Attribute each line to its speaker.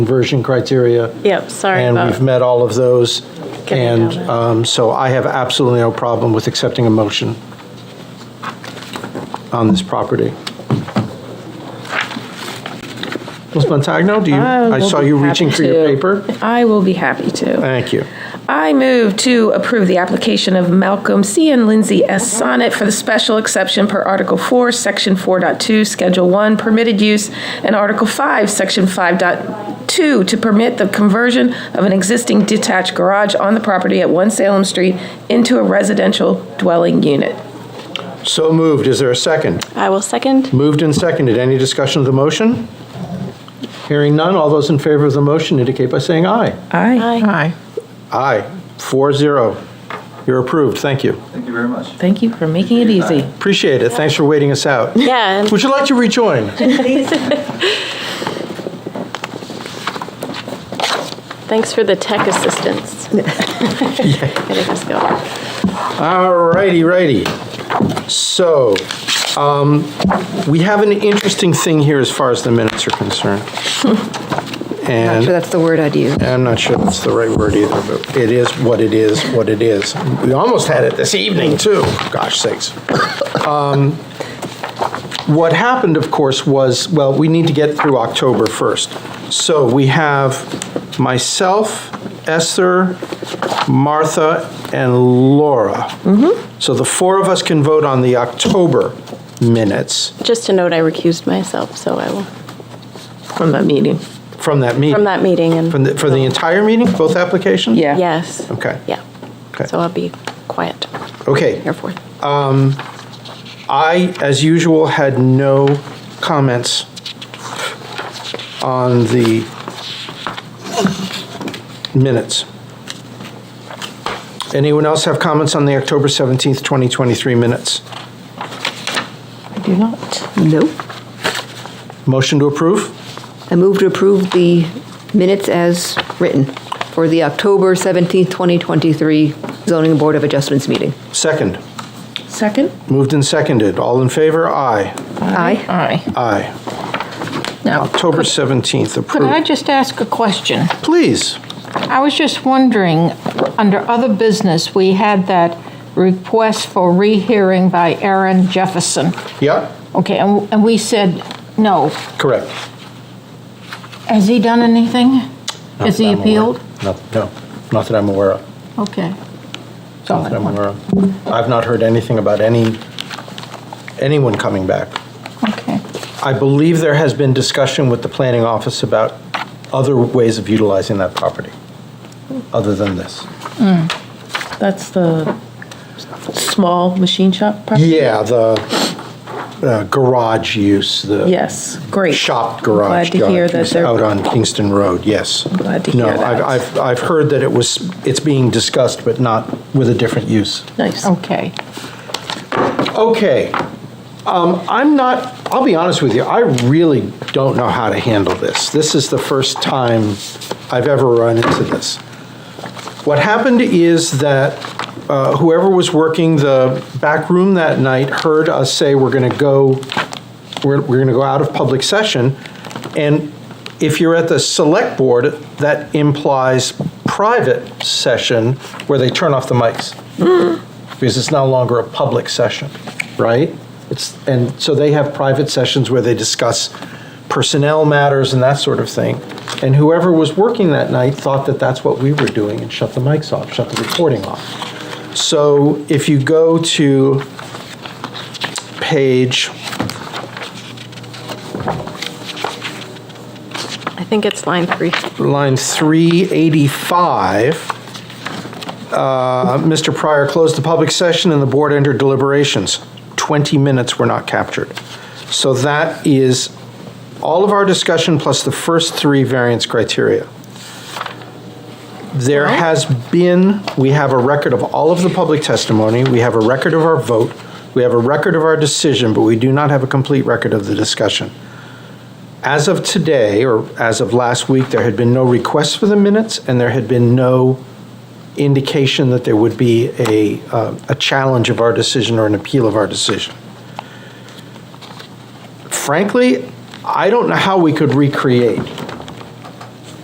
Speaker 1: conversion criteria.
Speaker 2: Yep, sorry
Speaker 1: And
Speaker 2: about-
Speaker 1: we've met all of those.
Speaker 2: Getting
Speaker 1: And
Speaker 2: down there.
Speaker 1: um, so I have absolutely no problem with accepting a motion on this property. Ms. Montagno, do you,
Speaker 3: I
Speaker 1: I
Speaker 2: Oh,
Speaker 3: will
Speaker 1: saw
Speaker 3: be
Speaker 1: you
Speaker 3: happy
Speaker 1: reaching for your
Speaker 3: to.
Speaker 1: paper.
Speaker 3: I will be happy to.
Speaker 1: Thank you.
Speaker 3: I move to approve the application of Malcolm C. and Lindsay S. Sonnet for the special exception per Article 4, Section 4.2, Schedule 1, permitted use, and Article 5, Section 5.2, to permit the conversion of an existing detached garage on the property at 1 Salem Street into a residential dwelling unit.
Speaker 1: So moved. Is there a second?
Speaker 2: I will second.
Speaker 1: Moved and seconded. Any discussion of the motion? Hearing none. All those in favor of the motion indicate by saying aye.
Speaker 3: Aye.
Speaker 2: Aye.
Speaker 1: Aye. Four zero. You're approved. Thank you.
Speaker 4: Thank you very much.
Speaker 3: Thank you for making it easy.
Speaker 1: Appreciate it. Thanks for waiting us out.
Speaker 2: Yeah, and-
Speaker 1: Would you like to rejoin?
Speaker 2: Thanks for the tech assistance. Getting us going.
Speaker 1: All righty, righty. So, um, we have an interesting thing here as far as the minutes are concerned.
Speaker 5: Not sure
Speaker 1: And
Speaker 5: that's the word I'd use.
Speaker 1: I'm not sure that's the right word either, but it is what it is, what it is. We almost had it this evening, too. Gosh sakes. Um, What happened, of course, was, well, we need to get through October 1st. So we have myself, Esther, Martha, and Laura.
Speaker 2: Mm-hmm.
Speaker 1: So the four of us can vote on the October minutes
Speaker 2: Just to note, I recused myself, so I will,
Speaker 3: From that meeting.
Speaker 1: from that meeting.
Speaker 2: from that meeting and.
Speaker 1: From the, for the entire meeting, both applications?
Speaker 3: Yeah.
Speaker 2: Yes.
Speaker 1: Okay.
Speaker 2: Yeah.
Speaker 1: Okay.
Speaker 2: So I'll be quiet,
Speaker 1: Okay.
Speaker 2: therefore.
Speaker 1: I, as usual, had no comments on the minutes. Anyone else have comments on the October 17th, 2023 minutes?
Speaker 3: I do not.
Speaker 5: No.
Speaker 1: Motion to approve?
Speaker 5: I move to approve the minutes as written for the October 17th, 2023 zoning board of adjustments meeting.
Speaker 1: Second.
Speaker 3: Second?
Speaker 1: Moved and seconded. All in favor? Aye.
Speaker 5: Aye.
Speaker 6: Aye.
Speaker 1: Aye.
Speaker 6: Now,
Speaker 1: October 17th,
Speaker 6: could I
Speaker 1: approved.
Speaker 6: just ask a question?
Speaker 1: Please.
Speaker 6: I was just wondering, under other business, we had that request for rehearing by Aaron Jefferson.
Speaker 1: Yep,
Speaker 6: Okay, and and we said no.
Speaker 1: correct.
Speaker 6: Has he done anything?
Speaker 1: Not
Speaker 6: Has
Speaker 1: that
Speaker 6: he
Speaker 1: I'm aware
Speaker 6: appealed?
Speaker 1: of. Not- No, not that I'm aware of.
Speaker 6: Okay.
Speaker 1: Not that I'm aware of. I've not heard anything about any, anyone coming back.
Speaker 6: Okay.
Speaker 1: I believe there has been discussion with the planning office about other ways of utilizing that property, other than this.
Speaker 3: That's the small machine shop property?
Speaker 1: Yeah, the uh, garage use, the.
Speaker 3: Yes, great.
Speaker 1: Shop garage.
Speaker 3: Glad to hear
Speaker 1: yard
Speaker 3: that
Speaker 1: use
Speaker 3: they're.
Speaker 1: Out on Kingston Road, yes.
Speaker 3: Glad to hear
Speaker 1: No, I've,
Speaker 3: that.
Speaker 1: I've, I've heard that it was, it's being discussed, but not with a different use.
Speaker 3: Nice.
Speaker 6: Okay.
Speaker 1: Okay. Um, I'm not, I'll be honest with you, I really don't know how to handle this. This is the first time I've ever run into this. What happened is that uh, whoever was working the back room that night heard us say we're going to go, we're, we're going to go out of public session. And if you're at the select board, that implies private session where they turn off the mics because it's no longer a public session, right? It's, and so they have private sessions where they discuss personnel matters and that sort of thing. And whoever was working that night thought that that's what we were doing and shut the mics off, shut the recording off. So if you go to page,
Speaker 2: I think it's line three.
Speaker 1: line 385, uh, Mr. Pryor closed the public session and the board entered deliberations. 20 minutes were not captured. So that is all of our discussion plus the first three variance criteria. There has been, we have a record of all of the public testimony, we have a record of our vote, we have a record of our decision, but we do not have a complete record of the discussion. As of today, or as of last week, there had been no requests for the minutes, and there had been no indication that there would be a, uh, a challenge of our decision or an appeal of our decision. Frankly, I don't know how we could recreate